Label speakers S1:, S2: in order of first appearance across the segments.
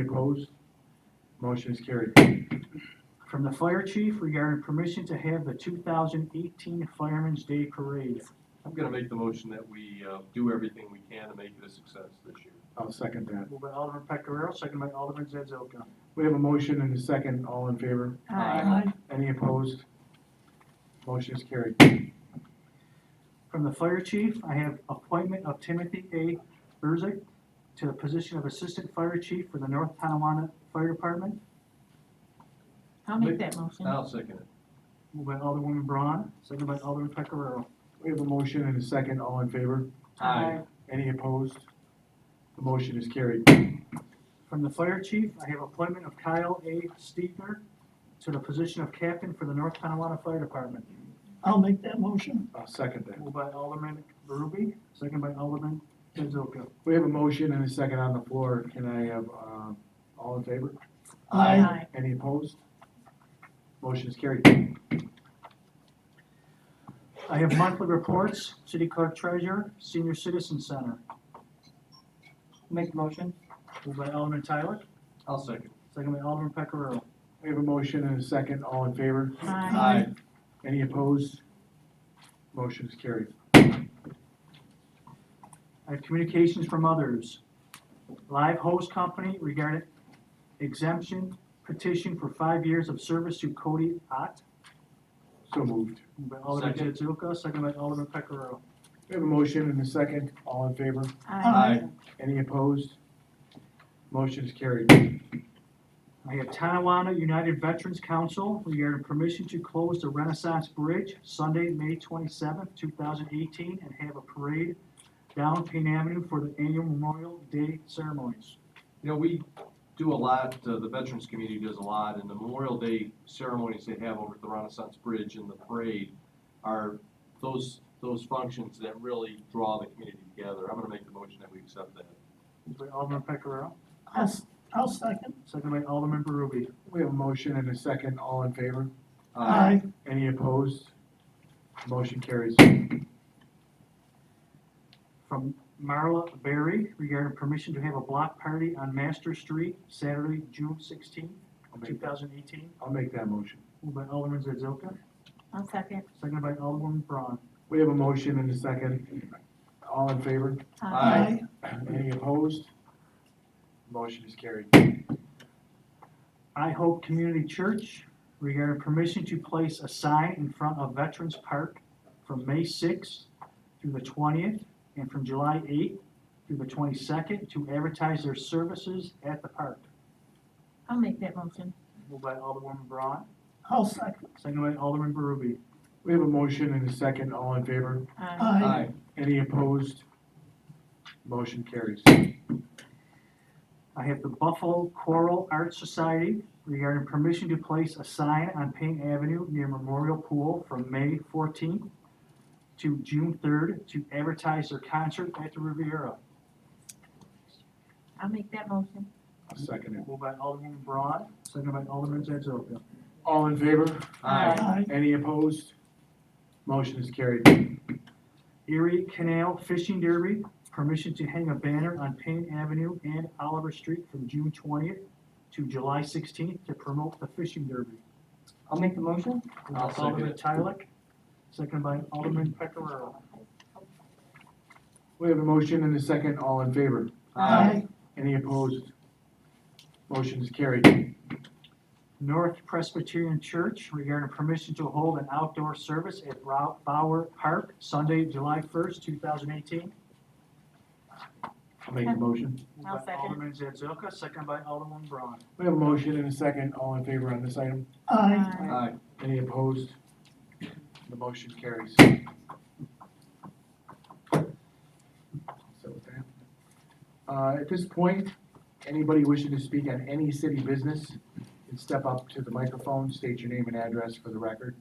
S1: Opposed? Motion is carried.
S2: From the fire chief regarding permission to have the two thousand eighteen Fireman's Day Parade.
S3: I'm gonna make the motion that we, uh, do everything we can to make it a success this year.
S1: I'll second that.
S2: Moved by Alderman Pecoraro, second by Alderman Zazoka.
S1: We have a motion and a second. All in favor?
S4: Aye.
S1: Any opposed? Motion is carried.
S2: From the fire chief, I have appointment of Timothy A. Burzick to the position of Assistant Fire Chief for the North Tonawanda Fire Department.
S4: I'll make that motion.
S3: I'll second it.
S2: Moved by Alderwoman Braun, second by Alderman Pecoraro.
S1: We have a motion and a second. All in favor?
S4: Aye.
S1: Any opposed? The motion is carried.
S2: From the fire chief, I have appointment of Kyle A. Steepner to the position of Captain for the North Tonawanda Fire Department.
S5: I'll make that motion.
S1: I'll second that.
S2: Moved by Alderman Berube, second by Alderman Zazoka.
S1: We have a motion and a second on the floor. Can I have, uh, all in favor?
S5: Aye.
S1: Any opposed? Motion is carried.
S2: I have monthly reports, city clerk treasurer, senior citizen center.
S4: Make motion.
S2: Moved by Alderman Tyler,
S3: I'll second.
S2: second by Alderman Pecoraro.
S1: We have a motion and a second. All in favor?
S4: Aye.
S1: Any opposed? Motion is carried.
S2: I have communications from others. Live Host Company regarding exemption petition for five years of service to Cody Ott.
S1: So moved.
S2: Moved by Alderman
S3: Second.
S2: Zazoka, second by Alderman Pecoraro.
S1: We have a motion and a second. All in favor?
S4: Aye.
S1: Any opposed? Motion is carried.
S2: I have Tonawanda United Veterans Council regarding permission to close the Renaissance Bridge Sunday, May twenty-seventh, two thousand eighteen, and have a parade down Payne Avenue for the annual Memorial Day ceremonies.
S3: You know, we do a lot, uh, the veterans community does a lot, and the Memorial Day ceremonies they have over at the Renaissance Bridge and the parade are those, those functions that really draw the community together. I'm gonna make the motion that we accept that.
S2: Moved by Alderman Pecoraro,
S5: I'll, s- I'll second.
S2: second by Alderman Berube.
S1: We have a motion and a second. All in favor? Any opposed? Motion carries.
S2: From Marla Berry regarding permission to have a block party on Master Street Saturday, June sixteenth,
S1: I'll
S2: two
S1: make that,
S2: thousand eighteen.
S1: I'll make that motion.
S2: Moved by Alderman Zazoka,
S4: I'll second.
S2: second by Alderman Braun.
S1: We have a motion and a second. All in favor?
S3: Aye.
S1: Any opposed? Motion is carried.
S2: I Hope Community Church regarding permission to place a sign in front of Veterans Park from May 6th through the 20th and from July 8th through the 22nd to advertise their services at the park.
S4: I'll make that motion.
S2: Moved by Alderwoman Braun,
S5: I'll second.
S2: second by Alderman Berube.
S1: We have a motion and a second. All in favor?
S4: Aye.
S5: Aye.
S1: Any opposed? Motion carries.
S2: I have the Buffalo Choral Arts Society regarding permission to place a sign on Payne Avenue near Memorial Pool from May 14th to June 3rd to advertise their concert at the Riviera.
S4: I'll make that motion.
S1: I'll second it.
S2: Moved by Alderman Braun, seconded by Alderman Zazoka.
S1: All in favor?
S3: Aye.
S5: Aye.
S1: Any opposed? Motion is carried.
S2: Erie Canal Fishing Derby, permission to hang a banner on Payne Avenue and Oliver Street from June twentieth to July sixteenth to promote the fishing derby.
S4: I'll make the motion.
S2: Moved by
S3: I'll second
S2: Alderman
S3: it.
S2: Tyler, seconded by Alderman Pecoraro.
S1: We have a motion and a second. All in favor?
S5: Aye.
S1: Any opposed? Motion is carried.
S2: North Presbyterian Church regarding permission to hold an outdoor service at Rou- Bauer Park, Sunday, July first, two thousand eighteen.
S1: I'll make the motion.
S4: I'll second.
S2: Alderman Zazoka, seconded by Alderman Braun.
S1: We have a motion and a second. All in favor on this item?
S5: Aye.
S3: Aye.
S1: Any opposed? The motion carries. So, uh, At this point, anybody wishing to speak on any city business can step up to the microphone, state your name and address for the record.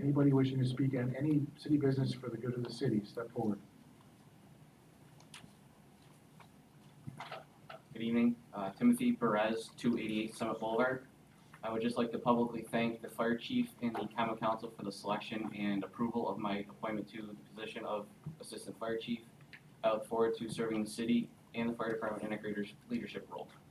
S1: Anybody wishing to speak on any city business for the good of the city, step forward.
S6: Good evening, Uh, Timothy Perez, 288 Summit Boulevard. I would just like to publicly thank the fire chief and the common council for the selection and approval of my appointment to the position of assistant fire chief. I look forward to serving the city and the fire department in a greater leadership role.